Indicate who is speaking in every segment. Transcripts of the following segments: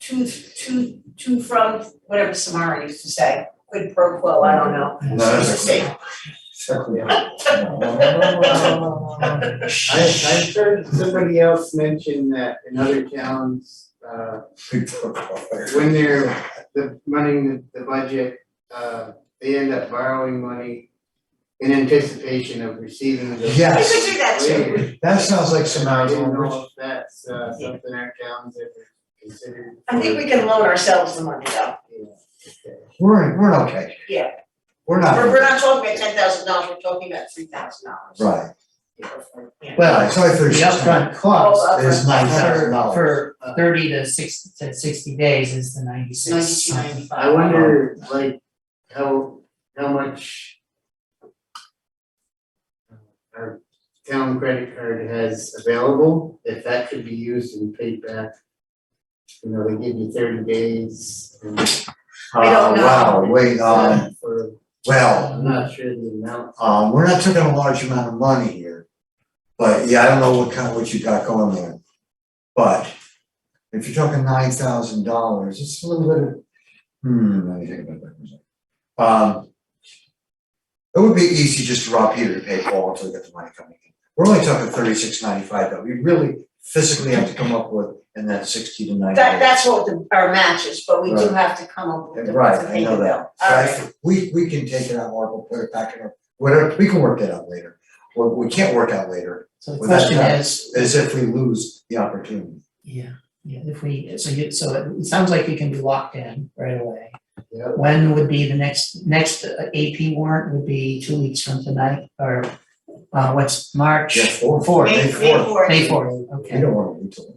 Speaker 1: to to to from whatever Samara used to say, quid pro quo, I don't know.
Speaker 2: No,
Speaker 1: She's a
Speaker 2: that's
Speaker 1: saint.
Speaker 2: exactly. I, I've heard somebody else mention that in other towns, uh, when they're, the, running the, the budget, uh, they end up borrowing money in anticipation of receiving the.
Speaker 1: You
Speaker 3: Yes.
Speaker 1: could do that too.
Speaker 2: Later.
Speaker 3: That sounds like
Speaker 2: I
Speaker 3: Samara's
Speaker 2: didn't
Speaker 3: language.
Speaker 2: know if that's, uh, something our towns ever considered.
Speaker 1: I think we can loan ourselves the money though.
Speaker 3: We're, we're okay.
Speaker 1: Yeah.
Speaker 3: We're
Speaker 1: We're
Speaker 3: not,
Speaker 1: we're not talking about ten thousand dollars, we're talking about three thousand dollars.
Speaker 3: right.
Speaker 1: Right.
Speaker 3: Well, it's only for
Speaker 4: The
Speaker 3: six
Speaker 4: upfront cost
Speaker 3: is nine thousand
Speaker 4: for,
Speaker 3: dollars.
Speaker 4: for thirty to six, to sixty days is the ninety-six.
Speaker 1: Ninety-two, ninety-five.
Speaker 2: I wonder, like, how, how much uh, our town credit card has available, if that could be used and paid back. You know, they give you thirty days and.
Speaker 1: I don't know.
Speaker 3: Ah, Wow, wait, um,
Speaker 2: For,
Speaker 3: well,
Speaker 2: I'm not sure the amount,
Speaker 3: um, we're not talking a large amount of money here. But yeah, I don't know what kind, what you got going there. But if you're talking nine thousand dollars, it's a little bit of, hmm, let me think about that for a second. Um. It would be easy just to rob Peter to pay Paul until we get the money coming in. We're only talking thirty-six ninety-five, but we really physically have to come up with, and that's sixty to ninety.
Speaker 1: That that's what the our match is, but we do
Speaker 3: Right.
Speaker 1: have to come up with the
Speaker 3: Right,
Speaker 1: to
Speaker 3: I
Speaker 1: pay the
Speaker 3: know
Speaker 1: bill.
Speaker 3: that.
Speaker 1: Alright.
Speaker 3: Right, we, we can take it out, Mark, we'll put it back in our, whatever, we can work that out later. What we can't work out later
Speaker 4: So the
Speaker 3: Well, that's
Speaker 4: question
Speaker 3: not-
Speaker 4: is,
Speaker 3: is if we lose the opportunity.
Speaker 4: yeah, yeah, if we, so you, so it- it sounds like we can be locked in right away.
Speaker 2: you
Speaker 4: When would be the next, next uh, AP warrant would be two weeks from tonight, or, uh, what's March?
Speaker 3: Yes, four, four,
Speaker 1: May-
Speaker 3: May
Speaker 1: May
Speaker 3: fourth.
Speaker 1: fourth.
Speaker 4: May fourth,
Speaker 3: We
Speaker 4: okay.
Speaker 3: don't wanna wait till,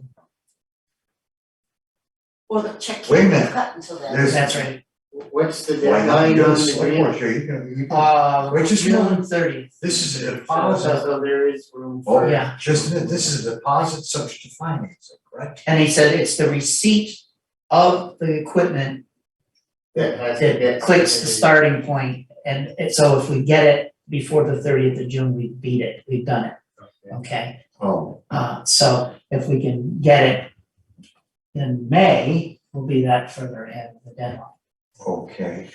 Speaker 1: Well, the check
Speaker 3: Wait a
Speaker 1: can't be
Speaker 3: minute.
Speaker 1: cut until then.
Speaker 3: There's-
Speaker 4: That's right.
Speaker 2: what's the
Speaker 3: why not
Speaker 2: deadline
Speaker 3: you
Speaker 2: on
Speaker 3: go
Speaker 2: the
Speaker 3: select board
Speaker 2: grant?
Speaker 3: here, you can, you can,
Speaker 4: Uh,
Speaker 3: Which is
Speaker 4: June thirtieth,
Speaker 3: this is a
Speaker 2: So-
Speaker 3: deposit,
Speaker 2: So there is room
Speaker 3: oh,
Speaker 2: for,
Speaker 3: yeah,
Speaker 4: Yeah.
Speaker 3: just, a- this is a deposit subject to financing, correct?
Speaker 4: and he said it's the receipt of the equipment
Speaker 2: that has to
Speaker 4: that
Speaker 2: get.
Speaker 4: clicks the starting point, and and so if we get it before the thirtieth of June, we beat it, we've done it, okay?
Speaker 3: Oh,
Speaker 4: Uh, so if we can get it in May, we'll be that further ahead of the deadline.
Speaker 3: okay,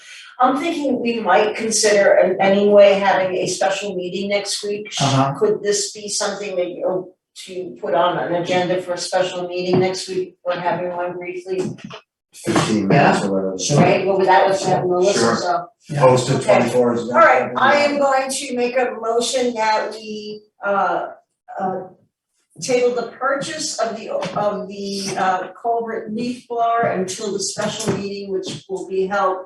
Speaker 1: I'm thinking we might consider in any way having a special meeting next week. Sh-
Speaker 4: Uh-huh.
Speaker 1: Could this be something that you, to put on an agenda for a special meeting next week, or having one briefly,
Speaker 3: fifteen minutes or whatever.
Speaker 4: Sure.
Speaker 1: right? Well, that was having Melissa,
Speaker 3: Sure.
Speaker 1: so.
Speaker 4: Oh.
Speaker 3: Posted
Speaker 1: Okay.
Speaker 3: twenty-four is.
Speaker 1: All right, I am going to make a motion that we, uh, uh, table the purchase of the, of the, uh, culvert leaf blower until the special meeting, which will be held.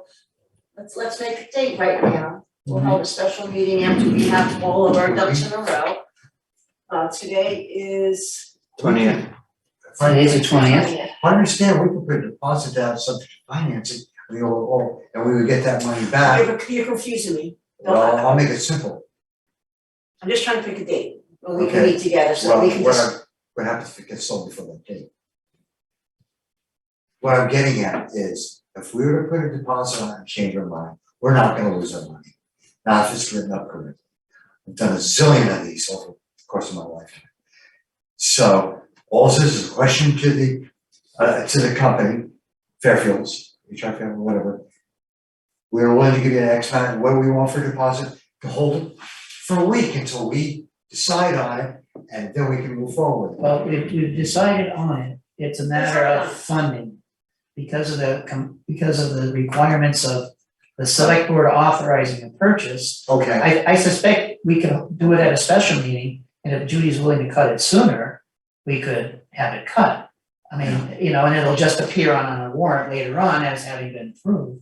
Speaker 1: Let's, let's make a date right now. We'll hold a special meeting after we have all of our ducks in a row. Uh, today is.
Speaker 3: Twentieth.
Speaker 4: Today's the twentieth,
Speaker 3: I understand, we could put a deposit down subject to financing, we all, all- and we would get that money back.
Speaker 1: You're, you're confusing me. Don't-
Speaker 3: Well, I'll make it simple.
Speaker 1: I'm just trying to pick a date when we can
Speaker 3: Okay.
Speaker 1: meet together, so
Speaker 3: Well,
Speaker 1: we can
Speaker 3: what
Speaker 1: just,
Speaker 3: I'm, what happens if it gets sold before that date? What I'm getting at is, if we were to put a deposit on it and change our mind, we're not gonna lose our money. Now, if it's written up correctly. I've done a zillion of these over the course of my life. So, all this is a question to the, uh, to the company, Fairfields, HR Fairfield, whatever. We're willing to give you an X amount, what do we want for deposit, to hold it for a week until we decide on it, and then we can move forward.
Speaker 4: well, we, we've decided on it, it's a matter of funding. Because of the, com- because of the requirements of the select board authorizing the purchase,
Speaker 3: Okay,
Speaker 4: I, I suspect we could do it at a special meeting, and if Judy's willing to cut it sooner, we could have it cut. I mean, you know, and it'll just appear on, on a warrant later on as having been approved,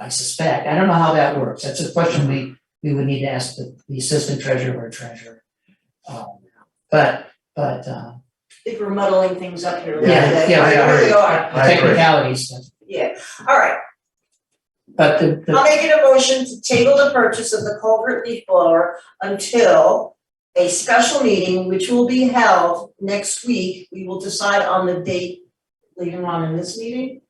Speaker 4: I suspect. I don't know how that works. That's a question we, we would need to ask the, the assistant treasurer or treasurer. Um, But, but, uh,
Speaker 1: I think we're muddling things up here a little
Speaker 3: Yeah,
Speaker 4: yeah,
Speaker 1: bit.
Speaker 4: yeah,
Speaker 3: I
Speaker 4: we
Speaker 1: Here
Speaker 3: agree.
Speaker 1: we are.
Speaker 4: are, the
Speaker 3: I agree.
Speaker 4: technicalities,
Speaker 1: Yeah, all right,
Speaker 4: but the,
Speaker 1: I'll
Speaker 4: the,
Speaker 1: make it a motion to table the purchase of the culvert leaf blower until a special meeting, which will be held next week. We will decide on the date later on in this meeting.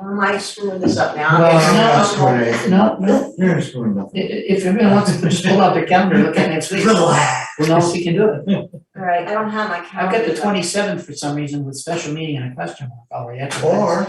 Speaker 1: Am I screwing this up now?
Speaker 4: Well,
Speaker 1: Okay,
Speaker 3: I'm
Speaker 4: no,
Speaker 3: not
Speaker 1: I'm
Speaker 3: screwing anything.
Speaker 4: No, no.
Speaker 3: You're not screwing nothing.
Speaker 4: I- i- if everyone wants to just pull out their calendar, look at next week, who
Speaker 3: Relax.
Speaker 4: knows if you can do it?
Speaker 1: All right, I don't have my calendar.
Speaker 4: I've got the
Speaker 1: though.
Speaker 4: twenty seventh for some reason with special meeting and a question mark already, that's.
Speaker 3: Or